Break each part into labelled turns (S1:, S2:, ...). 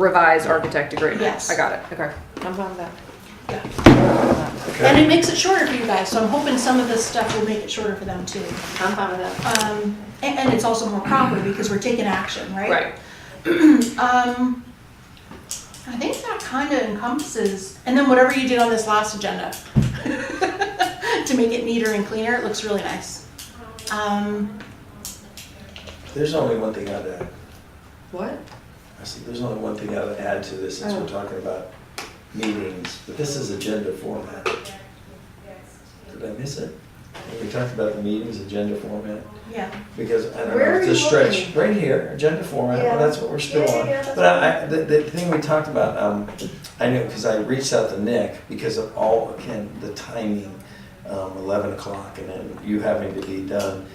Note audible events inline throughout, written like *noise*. S1: revised architect agreement.
S2: Yes.
S1: I got it, okay. I'm fine with that.
S2: And it makes it shorter for you guys, so I'm hoping some of this stuff will make it shorter for them too.
S1: I'm fine with that.
S2: Um, and, and it's also more proper because we're taking action, right?
S1: Right,
S2: *clears throat* Um, I think that kind of encompasses, and then whatever you did on this last agenda *laughs* to make it neater and cleaner, it looks really nice. Um,
S3: There's only one thing I'd add.
S1: what?
S3: I see, there's only one thing I'd add to this, since
S1: Oh.
S3: we're talking about meetings, but this is agenda format. Did I miss it? When We talked about the meetings, agenda format,
S2: yeah.
S3: because I don't know,
S4: Where are
S3: it's a
S4: you
S3: stretch.
S4: looking?
S3: Right here, agenda format,
S4: Yeah.
S3: well, that's what we're still
S4: Yeah, yeah,
S3: on.
S4: yeah, that's
S3: But I, I- the, the thing we talked about, um, I knew, because I reached out to Nick, because of all, again, the timing, um, eleven o'clock, and then you having to be done,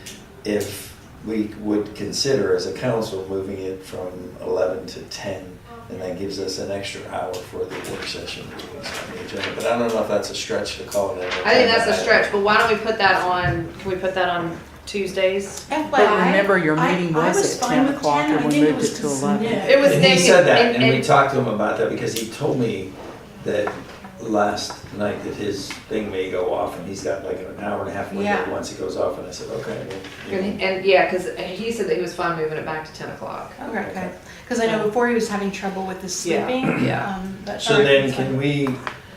S3: if we would consider as a council moving it from eleven to ten, and that gives us an extra hour for the work session meetings on the agenda, but I don't know if that's a stretch to call it. an
S1: I think that's a
S3: agenda
S1: stretch, but why don't we put that on, can we put that on Tuesdays?
S2: FYI,
S5: remember, your
S2: I-
S5: meeting
S2: I
S5: was at
S2: fine
S5: 10
S2: with
S5: o'clock
S2: 10,
S5: and
S2: I
S5: we
S2: think
S5: moved
S2: was
S5: it to
S2: just
S5: 11.
S2: nip.
S1: It was
S3: And he
S1: thinking-
S3: said that,
S1: and-
S3: and we
S1: and-
S3: talked to him about that because he told me that last night that his thing may go off and he's got like an hour and a half
S2: Yeah.
S3: window once it goes off, and I said, okay. well, you
S1: And, and, yeah, cause he said that he was fine moving it back to ten o'clock.
S2: Okay, because I know before he was having trouble with his
S1: Yeah,
S2: sleeping.
S1: yeah.
S2: um,
S3: know."
S2: but-
S3: So then can we,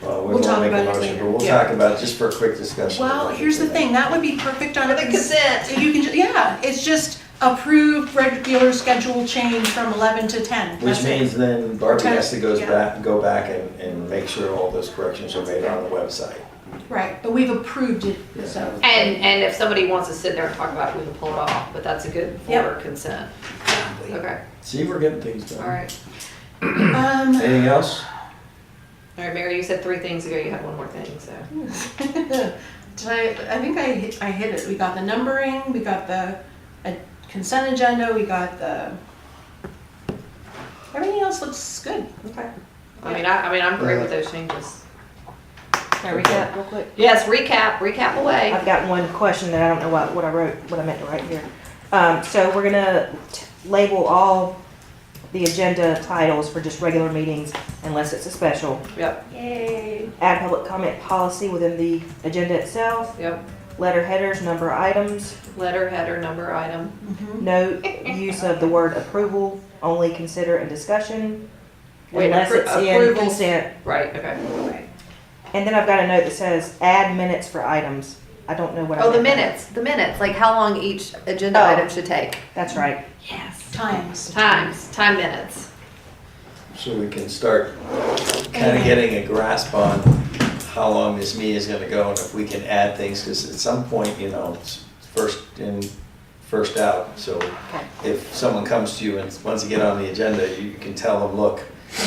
S3: well, we
S2: We'll
S3: won't
S2: talk
S3: make a
S2: about it
S3: motion,
S2: later.
S3: but we'll
S1: Yeah.
S3: talk about, it just for a quick discussion.
S2: Well, here's the thing, that would be perfect on.
S1: For the
S2: cons-
S1: consent.
S2: You can, ju- yeah, it's just approved regular schedule change from 11 to 10.
S3: Which
S2: That's it.
S3: means then Barbie
S2: Okay,
S3: has to goes
S2: yeah.
S3: back, go back and, and make sure all those corrections are made on the website.
S2: Right, but we've approved it, so.
S1: And, and if somebody wants to sit there and talk about it, we can pull it off, but that's a good for
S2: Yep.
S1: consent. Okay,
S3: See, we're getting things done.
S1: all right.
S2: Um,
S3: Anything else?
S1: All right, Mary, you said three things ago, you had one more thing, so.
S2: *laughs* Did I, I think I hit, I hit it. We got the numbering, we got the uh, consent agenda, we got the, everything else looks good.
S1: Okay. I mean, I, I mean, I'm great with those changes.
S6: Can I recap real quick?
S1: Yes, recap, recap away.
S6: I've got one question that I don't know what, what I wrote, what I meant to write here. Um, so we're gonna t- label all the agenda titles for just regular meetings unless it's a special.
S1: Yep,
S4: Yay.
S6: Add public comment policy within the agenda itself,
S1: yep.
S6: letter headers, number of items,
S1: Letter, header, number, item.
S6: no use of the word approval, only consider and discussion.
S1: Wait,
S6: Unless
S1: appro-
S6: it's in
S1: approval-
S6: consent.
S1: Right, okay.
S6: And then I've got a note that says add minutes for items. I don't know what I
S1: Oh, the
S6: meant by that.
S1: minutes, the minutes, like how long each agenda
S6: Oh.
S1: item should take.
S6: That's right.
S1: Yes.
S2: Times.
S1: Times, time minutes.
S3: So we can start kind of getting a grasp on how long this meeting is gonna go and if we can add things, because at some point, you know, it's first in, first out. So if someone comes to you and wants to get on the agenda, you you can tell them, look,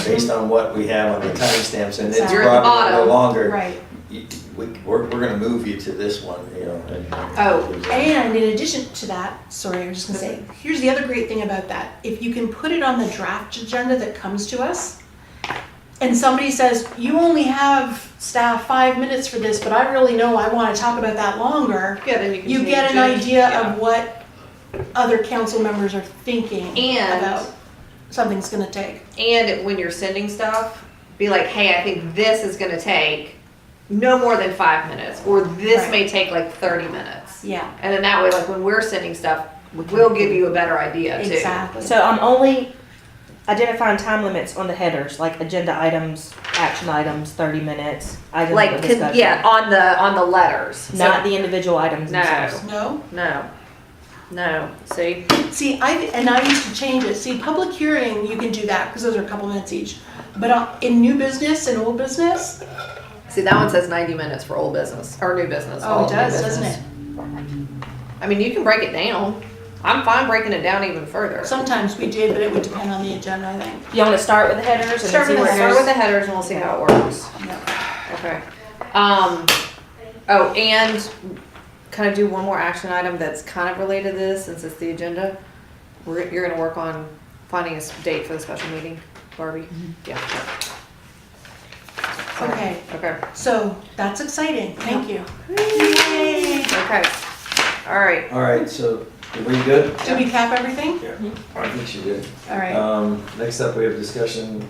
S3: based on what we have on the timestamps and it's
S2: You're
S1: at the
S3: probably no
S1: bottom.
S3: longer.
S2: Right.
S3: you- We, we're, we're gonna move you to this one, you know. and-
S1: Oh,
S2: And in addition to that, sorry, I was just gonna say, here's the other great thing about that. If you can put it on the draft agenda that comes to us, and somebody says, you only have staff five minutes for this, but I really know I wanna talk about that longer,
S1: Yeah, then you can
S2: you get an
S1: change it.
S2: idea
S1: Yeah.
S2: of what other council members are thinking
S1: And-
S2: about something's gonna take.
S1: And when you're sending stuff, be like, hey, I think this is gonna take no more than five minutes, or this
S2: Right.
S1: may take like thirty minutes.
S2: Yeah,
S1: And then that way, like when we're sending stuff, we'll give you a better idea too.
S2: exactly.
S6: So I'm only identifying time limits on the headers, like agenda items, action items, thirty minutes, items
S1: Like,
S6: of
S1: con-
S6: discussion.
S1: yeah, on the, on the letters. So-
S6: Not the individual items
S1: No.
S6: themselves.
S2: No?
S1: No, no, see?
S2: See, I, and I used to change it. See, public hearing, you can do that because those are a couple minutes each. But uh, in new business and old business,
S1: See, that one says ninety minutes for old business, or new business.
S2: oh,
S1: all
S2: it
S1: new
S2: does, doesn't
S1: business.
S2: it?
S1: I mean, you can break it down. I'm fine breaking it down even further.
S2: Sometimes we did, but it would depend on the agenda, I think.
S6: You wanna start with the headers and then
S1: Start
S6: see
S1: with, the-
S6: where it
S1: start with
S6: goes?
S1: the headers and we'll see how it works. Okay. Um, oh, and kind of do one more action item that's kind of related to this since it's the agenda. We're, you're gonna work on finding a s- date for the special meeting, Barbie? Yeah. Sorry.
S2: Okay.
S1: Okay.
S2: So that's exciting. Thank you.
S1: Okay. All right.
S3: All right, so, are we good?
S2: Did we cap everything?
S3: Yeah. I think she did.
S2: All right.
S3: Um, next up, we have discussion